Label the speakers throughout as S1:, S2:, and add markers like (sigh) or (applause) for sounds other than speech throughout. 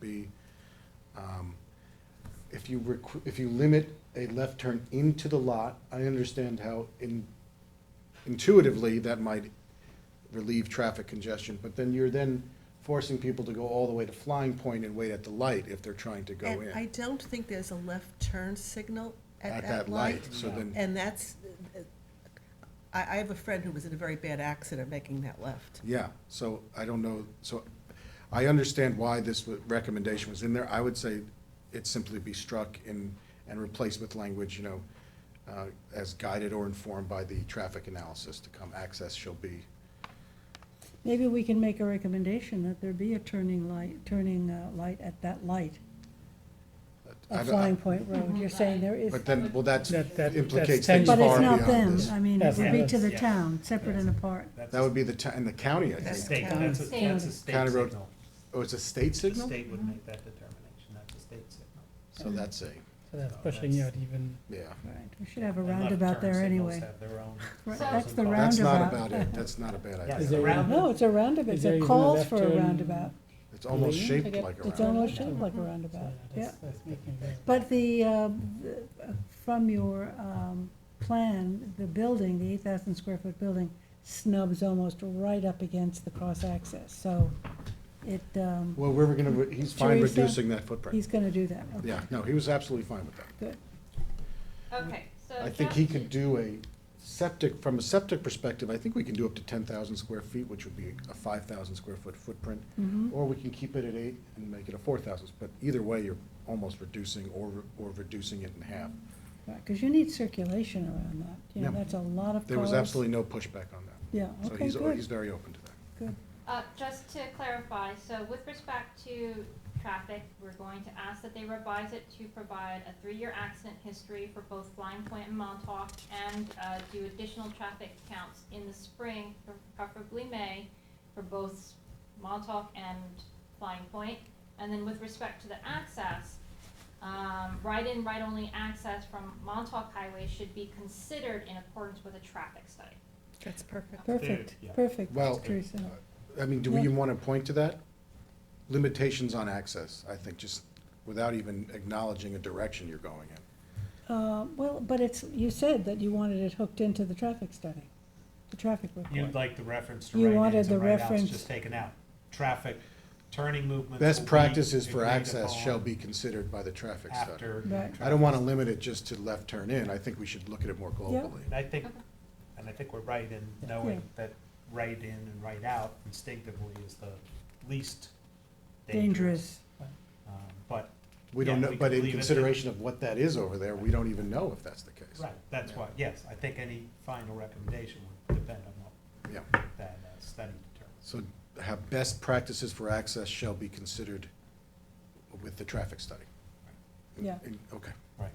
S1: be, um, if you requ- if you limit a left turn into the lot, I understand how in, intuitively that might relieve traffic congestion, but then you're then forcing people to go all the way to Flying Point and wait at the light if they're trying to go
S2: And I
S1: in
S2: don't think there's a left turn signal
S1: at that light, so
S3: No.
S1: then,
S2: And that's, I, I have a friend who was in a very bad accident making that left.
S1: yeah, so I don't know, so I understand why this w- recommendation was in there. I would say it simply be struck in, and replaced with language, you know, uh, as guided or informed by the traffic analysis to come, access shall be,
S4: Maybe we can make a recommendation that there be a turning light, turning uh, light at that light
S1: I
S4: at
S1: don't-
S4: Flying Point Road. You're saying there is,
S1: But then, well, that's
S5: That- that-
S1: implicates things
S5: that's
S1: far
S4: but it's
S1: beyond
S4: not them.
S1: this.
S4: I mean, it
S5: That's
S4: would be to
S5: us,
S4: the
S3: yeah.
S4: town, separate and apart.
S1: That would be the, ti- and the county, I
S2: That's
S1: think.
S3: State,
S2: town.
S3: that's a, that's a state
S1: County road
S3: signal.
S1: Oh, it's a state
S3: The
S1: signal?
S3: state would make that determination, that's a state signal.
S1: So that's a,
S5: So that's pushing out even,
S1: yeah.
S4: Right, we should have a
S3: And left
S4: roundabout
S3: turn
S4: there
S3: signals
S4: anyway.
S3: have their own
S4: Right,
S3: pros
S4: that's
S3: and
S4: the
S3: cons.
S1: That's not
S4: Roundabout.
S1: about it. That's not a bad
S3: Yeah, uh, it's
S5: Is
S1: idea.
S3: a
S5: there-
S3: round-
S4: No, it's a roundabout.
S5: Is there
S4: It
S5: even a
S4: calls
S5: left
S4: for a
S5: turn? Mm-hmm.
S4: roundabout.
S1: It's almost
S5: Lane?
S1: shaped
S5: Like a-
S1: like a
S4: It's
S1: round.
S4: almost shaped like a roundabout, yeah.
S5: that's, that's making very.
S4: But the, um, the- uh, from your um, plan, the building, the 8,000 square foot building snubs almost right up against the cross access, so it, um,
S1: Well, we're gonna, re- he's fine
S4: Teresa,
S1: reducing that footprint.
S4: he's going to do that. okay.
S1: Yeah, no, he was absolutely fine with that.
S4: Good.
S6: Okay, so.
S1: I think he could do a septic, from a septic perspective, I think we can do up to ten thousand square feet, which would be a five thousand square foot footprint.
S4: Mhm.
S1: Or we can keep it at eight and make it a four thousand, but either way, you're almost reducing or, re- or reducing it in half.
S4: Because you need circulation around that, you know,
S1: Yeah.
S4: that's a lot of cars.
S1: There was absolutely no pushback on that.
S4: Yeah,
S1: So
S4: okay,
S1: he's, o- he's
S4: good,
S1: very open to that.
S4: good.
S6: Uh, just to clarify, so with respect to traffic, we're going to ask that they revise it to provide a three-year accident history for both Flying Point and Montauk and, uh, do additional traffic counts in the spring, preferably May, for both Montauk and Flying Point. And then with respect to the access, um, right-in, right-only access from Montauk Highway should be considered in accordance with a traffic study.
S2: That's perfect.
S4: Perfect,
S3: yeah.
S4: perfect,
S1: Well,
S4: Teresa.
S1: I mean, do we
S4: Yeah.
S1: even want to point to that? Limitations on access, I think, just without even acknowledging a direction you're going in.
S4: Uh, Well, but it's, you said that you wanted it hooked into the traffic study, the traffic report.
S3: You'd like the reference to
S4: You
S3: right-ins
S4: wanted
S3: and
S4: the
S3: right-outs
S4: reference-
S3: just taken out. Traffic, turning movements.
S1: Best
S3: will be
S1: practices for
S3: agreed
S1: access shall
S3: upon
S1: be considered by the traffic study.
S3: After.
S4: Right.
S1: I don't want to limit it just to left turn in, I think we should look at it more globally.
S3: And I think,
S6: Okay.
S3: and I think we're right in knowing that right in and right out instinctively is the least dangerous.
S4: Dangerous.
S3: Um, But,
S1: We don't
S3: Yeah,
S1: know,
S3: we
S1: but
S3: could
S1: in
S3: leave it there.
S1: consideration of what that is over there, we don't even know if that's the case.
S3: right, that's why, yes, I think any final recommendation would depend on
S1: Yeah,
S3: what that uh, study determines.
S1: so have best practices for access shall be considered with the traffic study.
S4: Yeah.
S1: And- Okay,
S3: Right.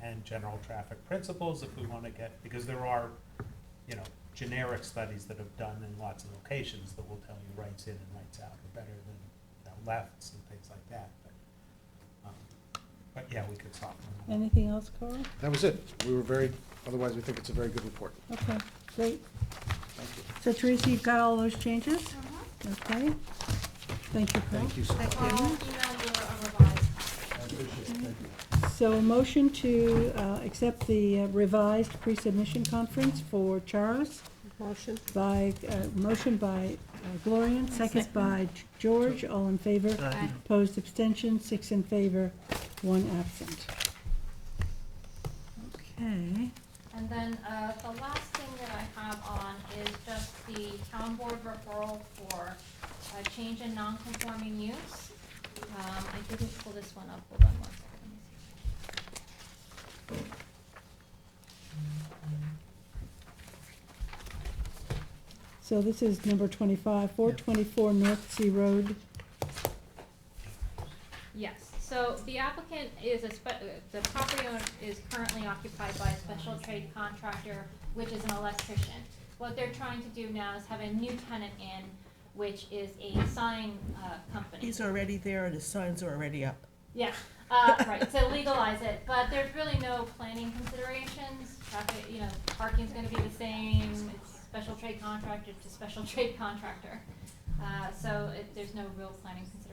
S3: And general traffic principles if we want to get, because there are, you know, generic studies that have done in lots of locations that will tell you rights in and rights out are better than you know, lefts and things like that. But, um, But yeah, we could soften them. up.
S4: Anything else, Carl?
S1: that was it. We were very, otherwise we think it's a very good report.
S4: Okay, great.
S1: Thank you.
S4: So Teresa, you've got all those changes?
S6: Mhm.
S4: Okay. Thank you, Paul.
S1: Thank you so much.
S6: I'll Um, email you a revised
S4: So a motion to uh, accept the uh, revised pre-submission conference for Charos
S2: Motion?
S4: by, uh, motion by uh, Gloria, seconds by George, all in favor.
S6: Aye.
S4: Opposed, abstention, six in favor, one absent. Okay.
S6: And then, uh, the last thing that I have on is just the town board referral for a change in non-conforming use. Um, I didn't pull this one up, hold on one second. Let me see.
S4: So this is number twenty-five, four twenty-four North Sea Road.
S6: Yes, so the applicant is a spe- uh, the property owner is currently occupied by a special trade contractor, which is an electrician. What they're trying to do now is have a new tenant in, which is a sign, uh, company.
S2: He's already there and his signs are already up.
S6: Yeah, uh, right, to legalize it, but there's really no planning considerations, traffic, you know, parking's gonna be the same, it's (laughs) special trade contractor to special trade contractor. Uh, so it, there's no real planning considerations.